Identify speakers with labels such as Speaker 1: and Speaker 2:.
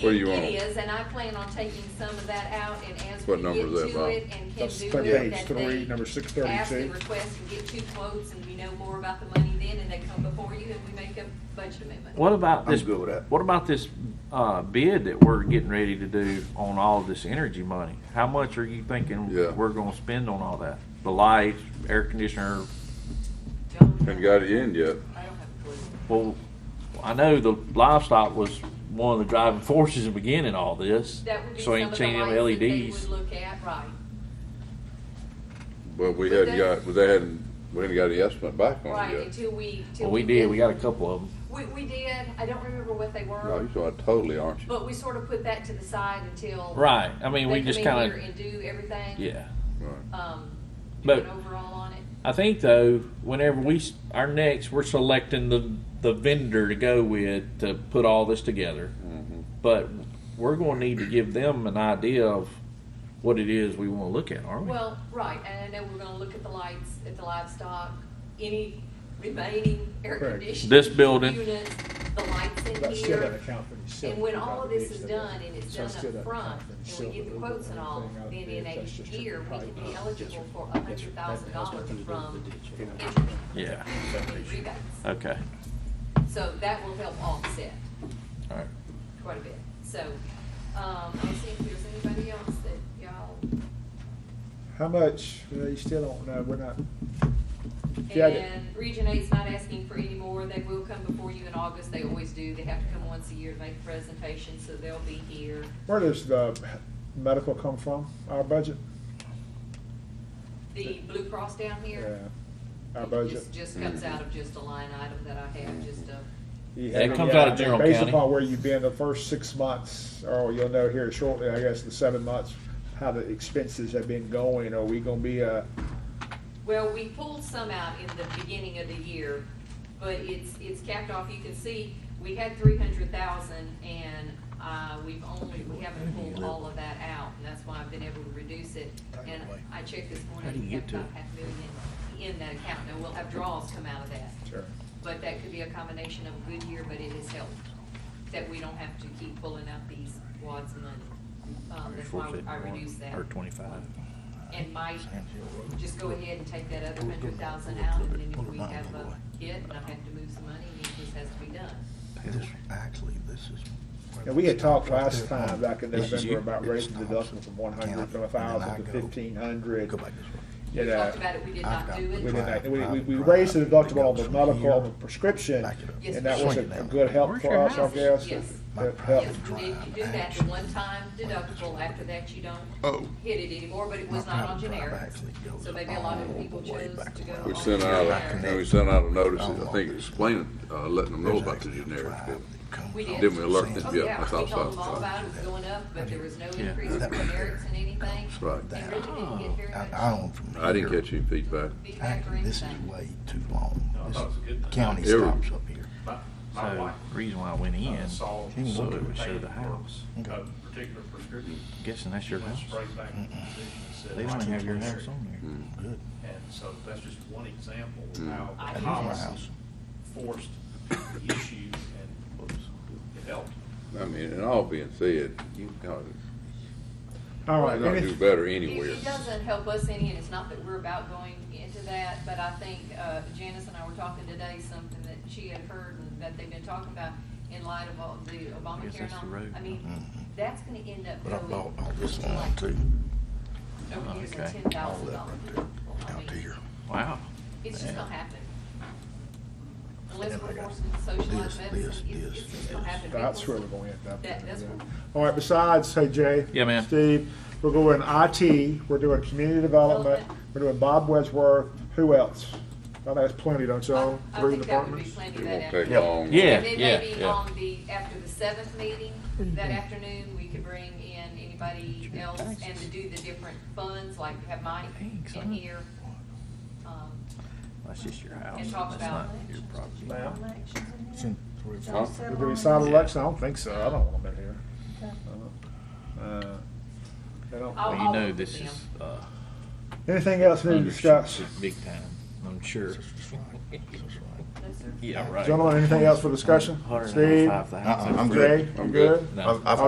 Speaker 1: What do you want?
Speaker 2: It is, and I plan on taking some of that out, and as we
Speaker 1: What number is
Speaker 2: get
Speaker 1: that,
Speaker 2: to
Speaker 1: Bob?
Speaker 2: it and can
Speaker 3: That's
Speaker 2: do it,
Speaker 3: third page
Speaker 2: that
Speaker 3: three, number
Speaker 2: they
Speaker 3: 632.
Speaker 2: ask and request and get two quotes, and we know more about the money then, and they come before you, and we make a budget amendment.
Speaker 4: What about
Speaker 5: I'm
Speaker 4: this?
Speaker 5: good with that.
Speaker 4: What about this uh, bid that we're getting ready to do on all this energy money? How much are you thinking
Speaker 1: Yeah.
Speaker 4: we're going to spend on all that? The lights, air conditioner.
Speaker 2: Don't-
Speaker 1: Haven't got it in yet.
Speaker 2: I don't have a clue.
Speaker 4: Well, I know the livestock was one of the driving forces in beginning all this.
Speaker 2: That would be
Speaker 4: so
Speaker 2: some of the
Speaker 4: anything them E
Speaker 2: lights that they
Speaker 4: LEDs.
Speaker 2: would look at, right.
Speaker 1: But we
Speaker 2: But
Speaker 1: hadn't
Speaker 2: they-
Speaker 1: got, well, they hadn't, we hadn't got the estimate back on
Speaker 2: Right,
Speaker 1: it yet.
Speaker 2: until we, till
Speaker 4: Well, we did. We got a couple of them.
Speaker 2: We, we did, I don't remember what they
Speaker 1: No,
Speaker 2: were,
Speaker 1: you're talking totally, aren't you?
Speaker 2: but we sort of put that to the side until.
Speaker 4: Right. I mean,
Speaker 2: they
Speaker 4: we just
Speaker 2: come in
Speaker 4: kind
Speaker 2: here
Speaker 4: of
Speaker 2: And do everything.
Speaker 4: yeah.
Speaker 1: Right.
Speaker 2: Um, do
Speaker 4: But-
Speaker 2: an overall on it.
Speaker 4: I think though, whenever we s- our next, we're selecting the the vendor to go with to put all this together. But we're going to need to give them an idea of what it is we want to look at, aren't we?
Speaker 2: Well, right, and I know we're gonna look at the lights, at the livestock, any remaining air
Speaker 3: Correct.
Speaker 2: conditioning.
Speaker 4: This building.
Speaker 2: Units, the lights in
Speaker 3: That's still
Speaker 2: here.
Speaker 3: got to account for the silver.
Speaker 2: And when all of this is
Speaker 3: valuation that-
Speaker 2: done and it's
Speaker 3: so it's still
Speaker 2: done up
Speaker 3: gotta
Speaker 2: front,
Speaker 3: account for
Speaker 2: and we
Speaker 3: silver,
Speaker 2: get the quotes and all,
Speaker 3: everything out
Speaker 2: then
Speaker 3: there,
Speaker 2: in a
Speaker 3: that's just your
Speaker 2: year, we
Speaker 3: price.
Speaker 2: can be
Speaker 3: Yes, sir.
Speaker 2: eligible for a
Speaker 3: That-
Speaker 2: hundred thousand
Speaker 3: that has
Speaker 2: dollars
Speaker 3: nothing to do
Speaker 2: from.
Speaker 3: with the ditch.
Speaker 4: yeah.
Speaker 2: interest rebates.
Speaker 4: Okay.
Speaker 2: So that will help offset
Speaker 4: All right.
Speaker 2: quite a bit. So, um, I'll see if there's anybody else that y'all.
Speaker 3: How much, well, you still don't know, we're not, Yeah, I did.
Speaker 2: And Region Eight's not asking for any more. They will come before you in August. They always do. They have to come once a year to make a presentation, so they'll be here.
Speaker 3: where does the medical come from, our budget?
Speaker 2: The Blue Cross down
Speaker 3: Yeah,
Speaker 2: here.
Speaker 3: Our
Speaker 2: it
Speaker 3: budget.
Speaker 2: just- Just comes out of just a line item that I have, just a.
Speaker 3: You
Speaker 4: Yeah, it
Speaker 3: have-
Speaker 4: comes
Speaker 3: yeah,
Speaker 4: out of
Speaker 3: I mean,
Speaker 4: general
Speaker 3: Based
Speaker 4: county.
Speaker 3: upon where you've been the first six months, or you'll know here shortly, I guess, the seven months, how the expenses have been going, are we gonna be, uh,
Speaker 2: Well, we pulled some out in the beginning of the year, but it's, it's capped off. You can see, we had three hundred thousand and, uh, we've only, we haven't pulled all of that out, and that's why I've been able to reduce it. And I checked this
Speaker 4: How do
Speaker 2: morning,
Speaker 4: you
Speaker 2: we have
Speaker 4: get to
Speaker 2: about
Speaker 4: it?
Speaker 2: half a million in that account. Now, we'll have draws come out of that.
Speaker 3: sure,
Speaker 2: But that could be a combination of a good year, but it has helped, that we don't have to keep pulling out these wads of money. Um, that's why I reduced that.
Speaker 4: Or twenty-five.
Speaker 2: And Mike, just go ahead and take that other hundred thousand out, and then if we have a hit, and I have to move some money, it just has to be done.
Speaker 6: This, actually, this is.
Speaker 3: And we had talked last
Speaker 6: Right there.
Speaker 3: time, back in
Speaker 6: This is
Speaker 3: November,
Speaker 4: you.
Speaker 3: about
Speaker 6: It
Speaker 3: raising the
Speaker 6: stops.
Speaker 3: deductible from one
Speaker 6: Can I-
Speaker 3: hundred, from a
Speaker 6: and then I
Speaker 3: thousand to
Speaker 6: go.
Speaker 3: fifteen hundred.
Speaker 6: Go back this way.
Speaker 3: You
Speaker 2: We
Speaker 3: know,
Speaker 2: talked about it, we did
Speaker 6: I've
Speaker 2: not
Speaker 6: got
Speaker 2: do
Speaker 3: we
Speaker 2: it.
Speaker 6: the-
Speaker 3: didn't, we, we, we raised the deductible on the medical, on the prescription, and that was a a good help for us, I guess. It-
Speaker 2: Yes,
Speaker 3: it
Speaker 2: yes,
Speaker 3: helped.
Speaker 2: we did, you do that, the one-time deductible, after that you don't hit it anymore, but it was
Speaker 6: My
Speaker 2: not on
Speaker 6: private drive
Speaker 2: generic.
Speaker 6: actually goes
Speaker 2: So maybe a lot of
Speaker 6: all
Speaker 2: people
Speaker 6: the way
Speaker 2: chose
Speaker 6: back
Speaker 2: to go
Speaker 6: around.
Speaker 1: We
Speaker 2: on
Speaker 1: sent out,
Speaker 2: generic.
Speaker 1: a- we sent out a notice, I think explaining, uh, letting them know about the generics. but-
Speaker 2: We did.
Speaker 1: Didn't we alert them?
Speaker 2: Oh,
Speaker 1: Yeah,
Speaker 2: yeah, we
Speaker 1: I thought
Speaker 2: told them
Speaker 1: so.
Speaker 2: all about it, it was going up, but there was no
Speaker 4: Yeah.
Speaker 2: increase in generics and anything.
Speaker 1: That's right.
Speaker 2: And really didn't get very
Speaker 6: I,
Speaker 2: much
Speaker 6: Oh, I own from.
Speaker 1: I didn't
Speaker 6: here.
Speaker 1: catch any feedback.
Speaker 2: feedback or
Speaker 6: Actually, this is
Speaker 2: anything.
Speaker 6: way too long.
Speaker 7: No, I thought it was a good
Speaker 6: This
Speaker 7: thing.
Speaker 6: county
Speaker 1: Every-
Speaker 6: stops up here.
Speaker 7: My, my
Speaker 4: So
Speaker 7: wife
Speaker 4: reason why I went
Speaker 7: uh,
Speaker 4: in, so
Speaker 7: saw
Speaker 4: it would
Speaker 7: something
Speaker 4: show the
Speaker 7: that
Speaker 4: house.
Speaker 7: works, A particular prescription.
Speaker 4: I'm guessing that's your
Speaker 7: went
Speaker 4: house.
Speaker 7: Straight back to the physician and said.
Speaker 4: They don't even have your
Speaker 7: "Right
Speaker 4: house
Speaker 7: here."
Speaker 4: on
Speaker 6: Good.
Speaker 7: And so that's just one example of
Speaker 2: I
Speaker 7: how the
Speaker 2: hear
Speaker 6: That's
Speaker 2: that.
Speaker 6: my
Speaker 7: policy
Speaker 6: house.
Speaker 7: forced the issue and it helped.
Speaker 1: I mean, and all being said, you know,
Speaker 3: All
Speaker 1: you're
Speaker 3: right,
Speaker 1: gonna
Speaker 3: any-
Speaker 1: do better
Speaker 2: It-
Speaker 1: anywhere.
Speaker 2: It doesn't help us any, and it's not that we're about going into that, but I think uh, Janice and I were talking today, something that she had heard and that they've been talking about in light of all the Obamacare and
Speaker 4: that's the road.
Speaker 2: all. I mean,
Speaker 6: Mhm.
Speaker 2: that's gonna end up
Speaker 6: But I
Speaker 2: going.
Speaker 6: bought all this
Speaker 2: to
Speaker 6: land
Speaker 2: like
Speaker 6: too,
Speaker 2: Over here's a
Speaker 4: Okay.
Speaker 2: ten
Speaker 6: all
Speaker 2: thousand
Speaker 6: that
Speaker 2: dollar
Speaker 6: right
Speaker 2: deductible.
Speaker 6: there,
Speaker 2: I
Speaker 6: out to
Speaker 2: mean,
Speaker 6: here.
Speaker 4: Wow.
Speaker 2: It's just gonna happen. Unless
Speaker 6: And I
Speaker 2: we're
Speaker 6: got
Speaker 2: forced into socialized
Speaker 6: this,
Speaker 2: medicine,
Speaker 6: this,
Speaker 2: it's, it's just gonna
Speaker 6: this,
Speaker 2: happen.
Speaker 3: That's
Speaker 2: People-
Speaker 3: where we're gonna end up.
Speaker 2: That- that's where-
Speaker 3: All right, besides, hey Jay.
Speaker 4: Yeah, man.
Speaker 3: Steve, we're going IT, we're doing community development, we're doing Bob Wedgeworth, who else? I think that's plenty, don't you all?
Speaker 2: I- I think that would
Speaker 3: Three
Speaker 2: be
Speaker 3: departments?
Speaker 2: plenty
Speaker 1: It
Speaker 2: that
Speaker 1: won't take
Speaker 2: afternoon.
Speaker 1: long.
Speaker 4: Yeah.
Speaker 2: And then maybe
Speaker 4: yeah.
Speaker 2: on the, after the seventh meeting, that afternoon, we could bring in anybody else and to do the different funds, like have Mike
Speaker 4: Thanks,
Speaker 2: in
Speaker 4: huh?
Speaker 2: here. um,
Speaker 4: That's just your house.
Speaker 2: And talk
Speaker 4: That's not
Speaker 2: about-
Speaker 4: your property.
Speaker 3: Ma'am?
Speaker 6: It's in three or
Speaker 1: Huh?
Speaker 6: four.
Speaker 3: Did we sign election? I don't think so. I don't want them in here. Uh, I don't-
Speaker 2: I'll-
Speaker 4: Well, you
Speaker 2: I'll
Speaker 4: know
Speaker 2: look
Speaker 4: this
Speaker 2: at
Speaker 4: is uh,
Speaker 3: Anything else new to
Speaker 4: under
Speaker 3: discuss?
Speaker 4: big time. I'm sure.
Speaker 6: This is right. This is right.
Speaker 2: that's it.
Speaker 4: Yeah, right.
Speaker 3: Gentlemen, anything else for discussion? Steve?
Speaker 4: $195,000.
Speaker 6: Uh-uh, I'm
Speaker 3: Jay?
Speaker 6: good.
Speaker 1: I'm
Speaker 3: You
Speaker 1: good.
Speaker 4: No.
Speaker 3: All
Speaker 6: I've- I've